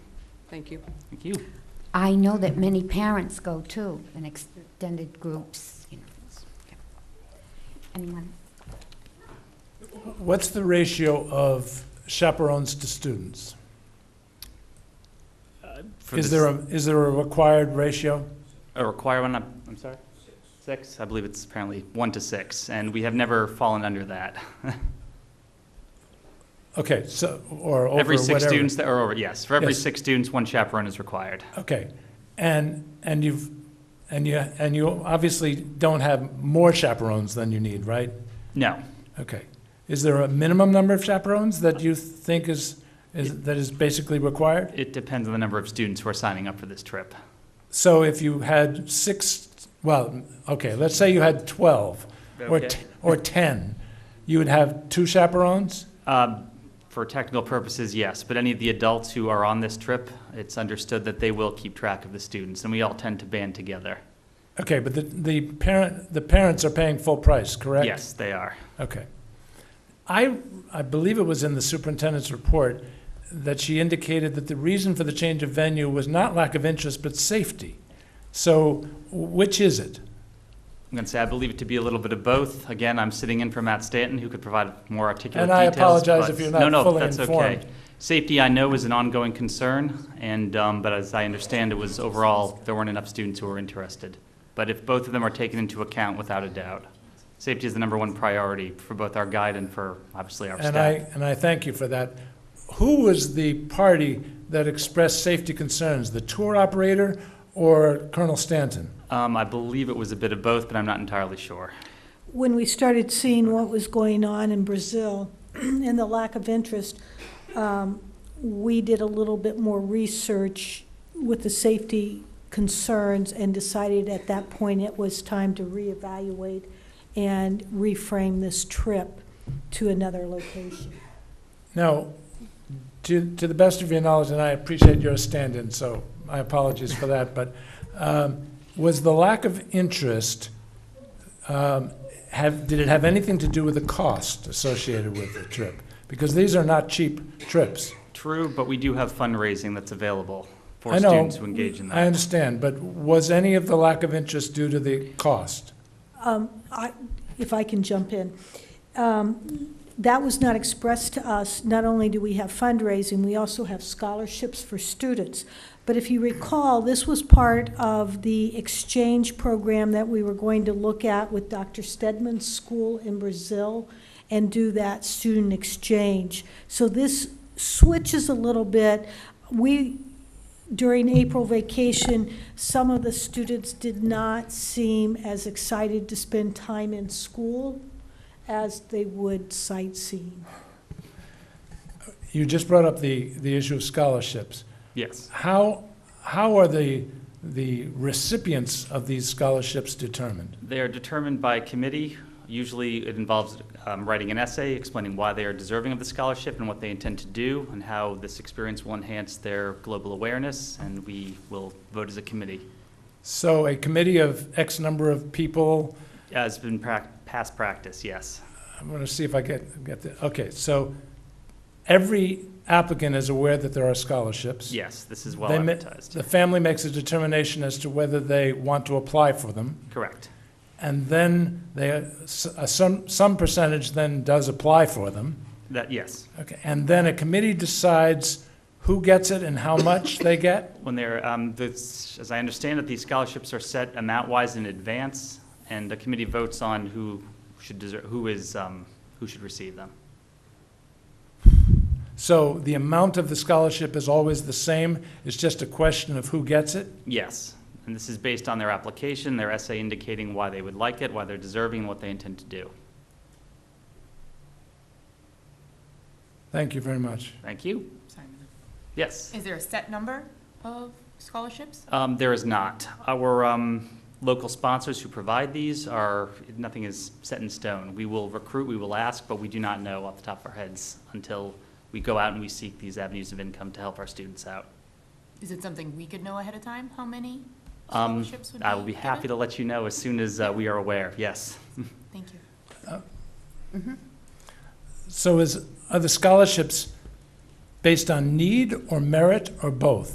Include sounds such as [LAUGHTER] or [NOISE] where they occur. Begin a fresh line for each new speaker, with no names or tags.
Thank you.
Thank you.
I know that many parents go too, in extended groups, you know. Anyone?
What's the ratio of chaperones to students?
For
Is
this-
there a, is there a required ratio?
a requirement? I'm, I'm sorry? Six? I believe it's apparently one to six, and we have never fallen under that.
Okay, so, or over
Every six
whatever.
students that are over, yes. For every
Yes.
six students, one chaperone is required.
Okay, and, and you've, and you, and you obviously don't have more chaperones than you need, right?
No.
Okay. Is there a minimum number of chaperones that you think is, is, that is basically required?
It depends on the number of students who are signing up for this trip.
So if you had six, well, okay, let's say you had 12 or,
Okay.
t- or 10, you would have two chaperones?
Um, For technical purposes, yes, but any of the adults who are on this trip, it's understood that they will keep track of the students, and we all tend to band together.
Okay, but the, the parent, the parents are paying full price, correct?
Yes, they are.
Okay. I, I believe it was in the superintendent's report that she indicated that the reason for the change of venue was not lack of interest, but safety. So which is it?
I'm going to say I believe it to be a little bit of both. Again, I'm sitting in for Matt Stanton, who could provide more articulate
And I
details.
apologize
but-
if you're not
no, no,
fully
that's okay.
informed.
Safety, I know, is an ongoing concern, and um, but as I understand, it was overall there weren't enough students who were interested. But if both of them are taken into account, without a doubt, safety is the number one priority for both our guide and for obviously our staff.
And I, and I thank you for that. Who was the party that expressed safety concerns? The tour operator or Colonel Stanton?
Um, I believe it was a bit of both, but I'm not entirely sure.
when we started seeing what was going on in Brazil [CLEARS THROAT] and the lack of interest, um, we did a little bit more research with the safety concerns and decided at that point it was time to reevaluate and reframe this trip to another location.
Now, to, to the best of your knowledge, and I appreciate your stand-in, so my apologies for that, but um, was the lack of interest, um, have, did it have anything to do with the cost associated with the trip? Because these are not cheap trips.
True, but we do have fundraising that's available for
I know.
students who engage in that.
I understand, but was any of the lack of interest due to the cost?
Um, I, if I can jump in. Um, That was not expressed to us. Not only do we have fundraising, we also have scholarships for students. But if you recall, this was part of the exchange program that we were going to look at with Dr. Stedman's school in Brazil and do that student exchange. So this switches a little bit. We, during April vacation, some of the students did not seem as excited to spend time in school as they would sightseeing.
You just brought up the, the issue of scholarships.
Yes.
How, how are the, the recipients of these scholarships determined?
They are determined by committee. Usually, it involves um, writing an essay explaining why they are deserving of the scholarship and what they intend to do, and how this experience will enhance their global awareness, and we will vote as a committee.
So a committee of X number of people,
As been prac- past practice, yes.
I'm going to see if I get, get the, okay, so every applicant is aware that there are scholarships.
Yes, this is well
They ma-
advertised.
The family makes a determination as to whether they want to apply for them,
Correct.
and then they, s- uh, some, some percentage then does apply for them.
That, yes.
Okay, and then a committee decides who gets it and how much they get?
When they're, um, this, as I understand it, these scholarships are set amount-wise in advance, and the committee votes on who should deserve, who is, um, who should receive them.
So the amount of the scholarship is always the same, it's just a question of who gets it?
Yes, and this is based on their application, their essay indicating why they would like it, why they're deserving, and what they intend to do.
Thank you very much.
Thank you.
Sorry, Madam.
Yes.
Is there a set number of scholarships?
Um, There is not. Our um, local sponsors who provide these are, nothing is set in stone. We will recruit, we will ask, but we do not know off the top of our heads until we go out and we seek these avenues of income to help our students out.
Is it something we could know ahead of time, how many
Um,
scholarships would be
I will be happy to
given?
let you know as soon as uh, we are aware, yes.
Thank you.
So is, are the scholarships based on need or merit or both?